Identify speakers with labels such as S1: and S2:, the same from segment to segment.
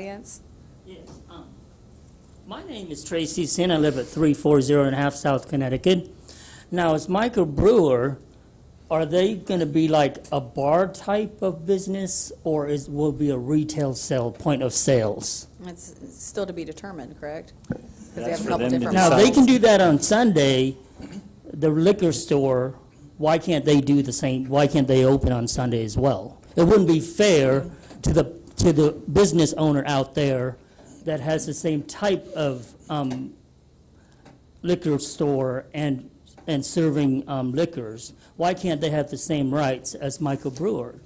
S1: audience.
S2: Yes, um, my name is Tracy Sin. I live at 340 and a half South Connecticut. Now, as microbrewer, are they going to be like a bar type of business, or is will it be a retail sale, point of sales?
S1: It's still to be determined, correct? 'Cause they
S3: That's
S1: have a
S3: for
S1: couple
S3: them to
S1: different
S2: Now, they
S1: models.
S2: can do that on Sunday, the liquor store, why can't they do the same, why can't they open on Sunday as well? It wouldn't be fair to the, to the business owner out there that has the same type of um, liquor store and, and serving um, liquors. Why can't they have the same rights as microbrewers?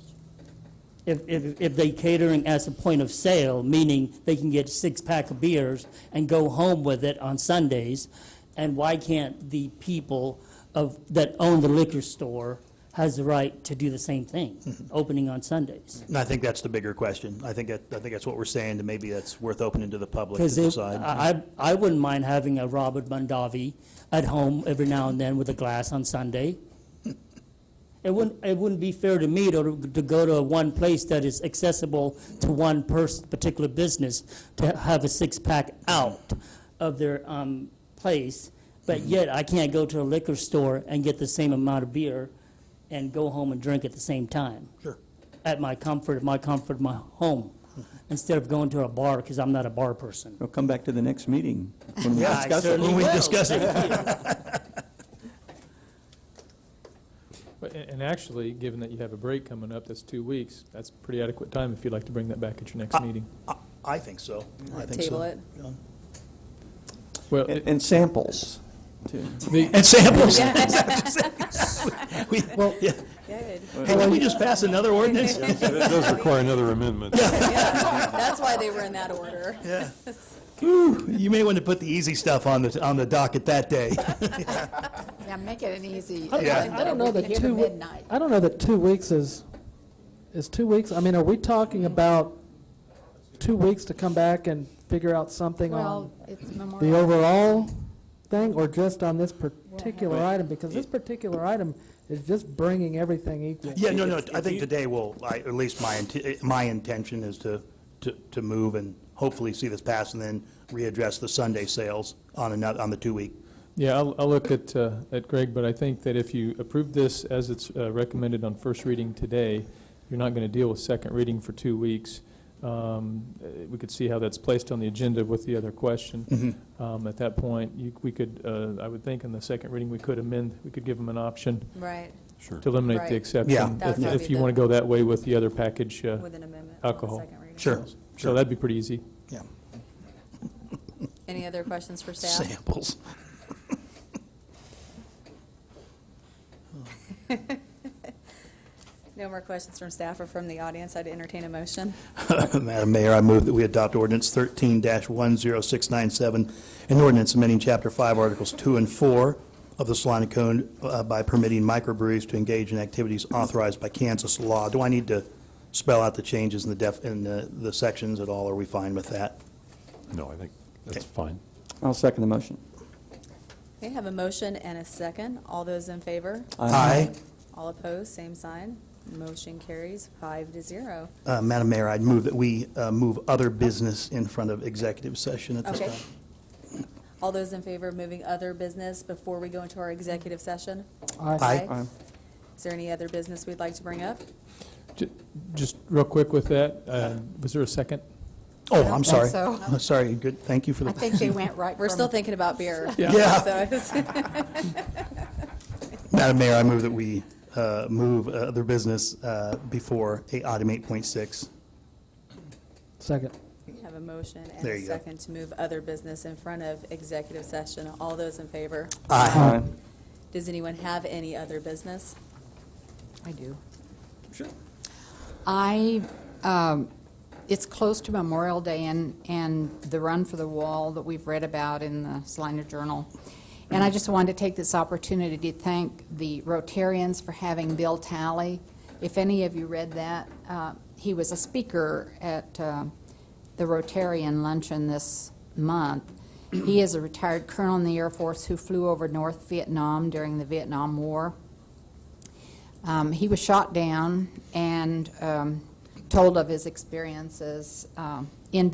S2: If, if, if they catering as a point of sale, meaning they can get a six-pack of beers and go home with it on Sundays, and why can't the people of, that own the liquor store has the right to do the same
S3: Mm-hmm.
S2: thing, opening on Sundays?
S3: And I think that's the bigger question. I think, that- I think that's what we're saying, and maybe that's worth opening to the public to
S2: Because if,
S3: decide.
S2: I, I I wouldn't mind having a Robert Mondavi at home every now and then with a glass on Sunday. It wouldn't, it wouldn't be fair to me to, to go to one place that is accessible to one person, particular business, to have a six-pack out of their, um, place, but yet I can't go to a liquor store and get the same amount of beer and go home and drink at the same time
S3: Sure.
S2: at my comfort, my comfort, my home, instead of going to a bar, because I'm not a bar person.
S4: We'll come back to the next meeting. when we
S2: Yeah, I
S4: discuss it.
S2: certainly
S3: When we
S2: will.
S3: discuss it.
S2: Thank you.
S5: But- And and actually, given that you have a break coming up, that's two weeks, that's pretty adequate time if you'd like to bring that back at your next meeting.
S3: I- I think so. I think so.
S1: Table it.
S3: Yeah.
S5: Well,
S4: And and samples, too.
S5: the-
S3: And samples. We- yeah.
S1: Good.
S3: Hey, did we just pass another ordinance?
S6: That does require another amendment.
S1: Yeah, That's why they were in that order.
S3: Ooh, You may want to put the easy stuff on the, on the docket that day.
S7: Yeah, make it an easy.
S8: I-
S3: Yeah.
S8: I I don't know that two, we-
S7: Midnight.
S8: I don't know that two weeks is, is two weeks, I mean, are we talking about two weeks to come back and figure out something on
S7: Well, it's
S8: the
S7: Memorial.
S8: overall thing, or just on this particular item? Because this particular item is just bringing everything equal.
S3: Yeah, no, no, I think today will, I- at least my, int- my intention is to, to, to move and hopefully see this pass and then readdress the Sunday sales on another, on the two-week.
S5: yeah, I'll, I'll look at, uh, at Greg, but I think that if you approve this as it's uh, recommended on first reading today, you're not going to deal with second reading for two weeks. Um, uh, We could see how that's placed on the agenda with the other
S3: Mm-hmm.
S5: question. Um, At that point, you, we could, uh, I would think in the second reading, we could amend, we could give them an option
S1: Right,
S6: Sure.
S5: to eliminate
S1: Right.
S5: the exception.
S3: Yeah.
S1: That would
S5: if-
S1: probably
S5: If
S1: be
S5: you
S1: the-
S5: want to go that way with the other package. uh,
S1: with an amendment. on the
S5: Alcohol.
S1: second reading.
S3: Sure,
S5: So that'd be pretty easy.
S3: yeah.
S1: Any other questions for staff?
S3: Samples.
S1: No more questions from staff or from the audience. I'd entertain a motion.
S3: Madam Mayor, I move that we adopt ordinance 13-10697, an ordinance amending Chapter 5, Articles 2 and 4 of the Salina Code uh, by permitting microbreweries to engage in activities authorized by Kansas law. Do I need to spell out the changes in the def, in the the sections at all? Are we fine with that?
S6: No, I think that's fine.
S4: I'll second the motion.
S1: Okay, have a motion and a second. All those in favor?
S3: Aye.
S1: All opposed, same sign. Motion carries five to zero.
S3: Uh, Madam Mayor, I'd move that we uh, move other business in front of executive session at this
S1: Okay.
S3: time.
S1: All those in favor of moving other business before we go into our executive session?
S8: I-
S3: Aye.
S4: Aye.
S1: Is there any other business we'd like to bring up?
S5: Ju- Just real quick with that, uh, was there a second?
S3: Oh,
S7: don't
S3: I'm
S7: think
S3: sorry.
S7: so.
S3: I'm Sorry, good, thank you for the.
S7: I think they went right
S1: We're still
S7: from
S1: thinking about beer.
S3: Yeah.
S1: So it's-
S3: Madam Mayor, I move that we uh, move uh, other business uh, before eight- item 8.6.
S8: Second.
S1: Have a motion and
S3: There
S1: a
S3: you go.
S1: second to move other business in front of executive session. All those in favor?
S4: Aye.
S1: Does anyone have any other business?
S7: I do. Sure. I, um, it's close to Memorial Day and, and the run for the wall that we've read about in the Salina Journal. And I just wanted to take this opportunity to thank the Rotarians for having Bill Talley. If any of you read that, uh, he was a speaker at uh, the Rotarian luncheon this month. He is a retired colonel in the Air Force who flew over North Vietnam during the Vietnam War. Um, he was shot down and um, told of his experiences um, in